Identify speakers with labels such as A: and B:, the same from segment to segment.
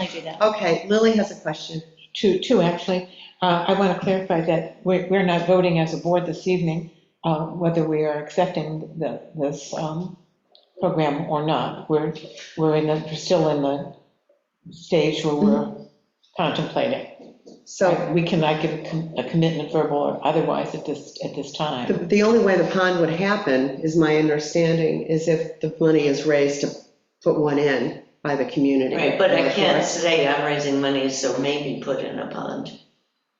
A: I do that.
B: Okay, Lily has a question.
C: Two, two, actually. Uh, I want to clarify that we're, we're not voting as a board this evening, uh, whether we are accepting the, this, um, program or not. We're, we're in the, we're still in the stage where we're contemplating.
B: Mm-hmm. So
C: We cannot give a com- a commitment verbal or otherwise at this, at this
B: the,
C: time.
B: the only way the pond would happen, is my understanding, is if the money is raised to put one in by the community.
D: Right, but I
B: Or-
D: can't say I'm raising money, so maybe put in a pond.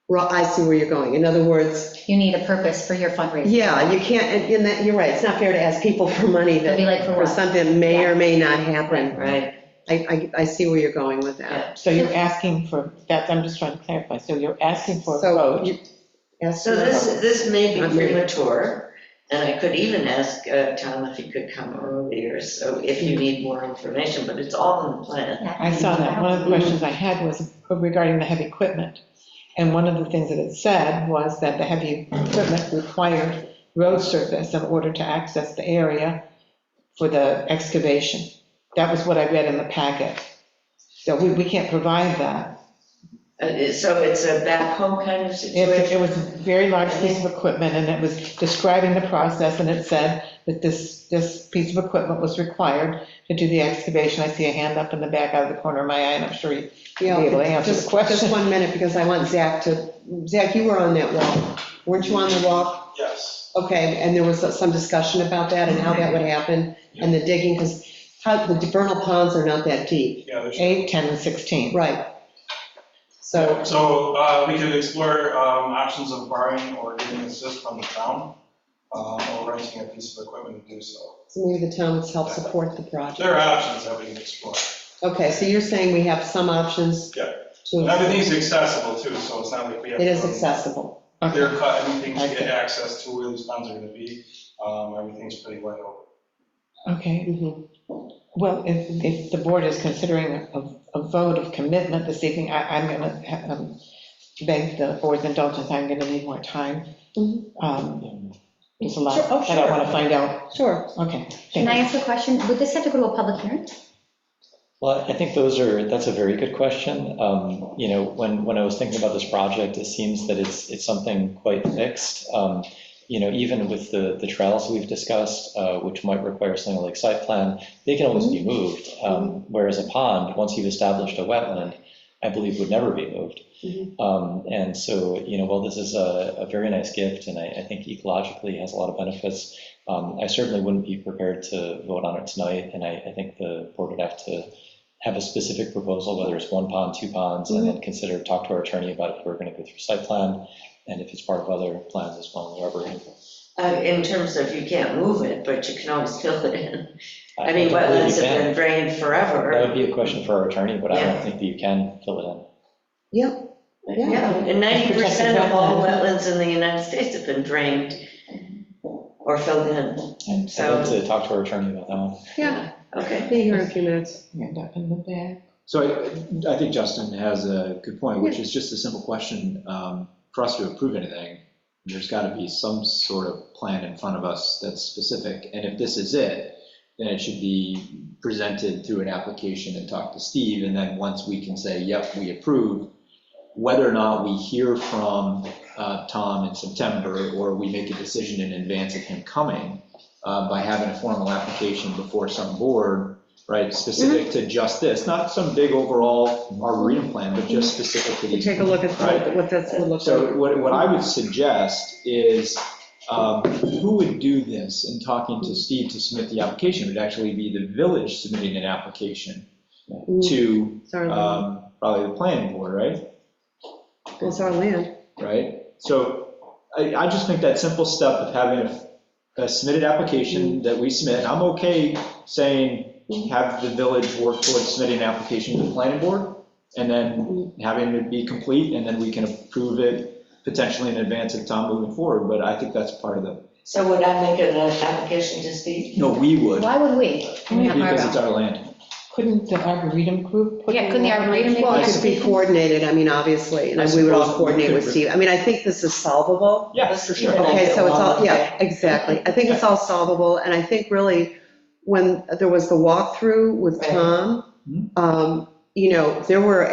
B: Well, I see where you're going. In other words,
A: You need a purpose for your fundraiser.
B: yeah, you can't, and and that, you're right, it's not fair to ask people for money
A: It'll be
B: that,
A: like for
B: for
A: what?
B: something that may or may not happen.
D: Right,
B: I, I, I see where you're going with that.
C: So you're asking for, that, I'm just trying to clarify. So you're asking for a
B: So,
C: vote.
B: you- yes,
D: so this, this may be
B: Not really.
D: premature, and I could even ask uh, Tom if he could come earlier, so if you need more information, but it's all in the plan.
A: Yeah.
C: I saw that. One of the questions I had was regarding the heavy equipment. And one of the things that it said was that the heavy equipment required road surface in order to access the area for the excavation. That was what I read in the packet. So we, we can't provide that.
D: Uh, So it's a backhoe kind of
C: It,
D: situation?
C: it was a very large piece of equipment and it was describing the process and it said that this, this piece of equipment was required to do the excavation. I see a hand up in the back out of the corner of my eye and I'm sure you
B: Yeah,
C: Be able to answer the
B: just, just
C: question.
B: one minute, because I want Zach to, Zach, you were on that wall. Weren't you on the wall?
E: Yes,
B: Okay, and there was some discussion about that and how that would happen, and the digging, because how, the vernal ponds are not that deep.
E: yeah, there's.
C: 8, 10, and 16.
B: Right. So,
E: So uh, we could explore um, options of borrowing or getting assist from the town, um, or renting a piece of equipment to do so.
B: so maybe the town would help support the project.
E: There are options that we can explore.
B: Okay, so you're saying we have some options?
E: Yeah. And
B: To,
E: everything's accessible too, so it's not like we have.
B: it is
E: to
B: accessible.
E: Clear cut, anything to
C: Okay.
E: get access to where these funds are gonna be, um, everything's pretty wide open.
C: Okay,
B: Mhm.
C: well, if, if the board is considering a, a vote of commitment this evening, I, I'm going to beg the board's indulgence, I'm going to need more time.
B: Mhm.
C: Um, There's a
B: Sure, oh,
C: lot that I
B: sure.
C: want to find out,
B: Sure.
C: okay.
A: Can I
C: thank
A: ask a question? Would this have to go to a public hearing?
F: Well, I think those are, that's a very good question. Um, You know, when, when I was thinking about this project, it seems that it's, it's something quite mixed. Um, You know, even with the, the trails we've discussed, uh, which might require something like site plan, they can always be moved. Um, Whereas a pond, once you've established a wetland, I believe would never be moved.
B: Mhm.
F: Um, And so, you know, well, this is a, a very nice gift, and I, I think ecologically has a lot of benefits. Um, I certainly wouldn't be prepared to vote on it tonight, and I, I think the board would have to have a specific proposal, whether it's one pond, two ponds,
D: Mm-hmm.
F: and then consider, talk to our attorney about if we're going to go through site plan, and if it's part of other plans as well, wherever.
D: Uh, In terms of you can't move it, but you can always fill it in.
F: Uh,
D: I mean, wetlands have been drained
F: That would
D: forever.
F: be a question for our attorney, but I
D: Yeah.
F: don't think that you can fill it in.
B: Yep, yeah.
D: Yeah, and ninety percent of all wetlands in the United States have been drained or filled in.
F: I'd like to talk to our attorney about that one.
B: yeah,
D: Okay.
B: be here in a few minutes.
C: you. Hand up in the back.
G: So I, I think Justin has a good point, which is just a simple question. Um, For us to approve anything, there's got to be some sort of plan in front of us that's specific. And if this is it, then it should be presented through an application and talk to Steve. And then once we can say, yep, we approve, whether or not we hear from uh, Tom in September or we make a decision in advance of him coming uh, by having a formal application before some board, right, specific
B: Mm-hmm.
G: to just this, not some big overall arboretum plan, but just specific to
B: We
G: these.
B: take a look at what- what that's, what looks like.
G: So what, what I would suggest is, um, who would do this in talking to Steve to submit the application? Would actually be the village submitting an application to,
B: It's our
E: uh,
B: land.
G: um, probably the planning board, right?
B: It's our land.
G: Right? So I, I just think that simple step of having a, a submitted application that we submit, and I'm okay saying, have the village work towards submitting an application to the planning board, and then having it be complete, and then we can approve it potentially in advance of Tom moving forward, but I think that's part of the,
D: So would I make an application to Steve?
G: no, we would,
A: Why would we? Not my
G: because
A: row.
G: it's our land.
C: Couldn't the Arboretum group put?
A: Yeah, couldn't the Arboretum make
B: Well,
A: that?
B: it could be coordinated, I mean, obviously, and we would all coordinate with Steve. I mean, I think this is solvable.
G: Yeah, for sure.
B: Okay, so it's all, yeah, exactly. I think it's all solvable, and I think really, when there was the walkthrough with
D: Right.
B: Tom,
G: Mhm.
B: um, you know, there were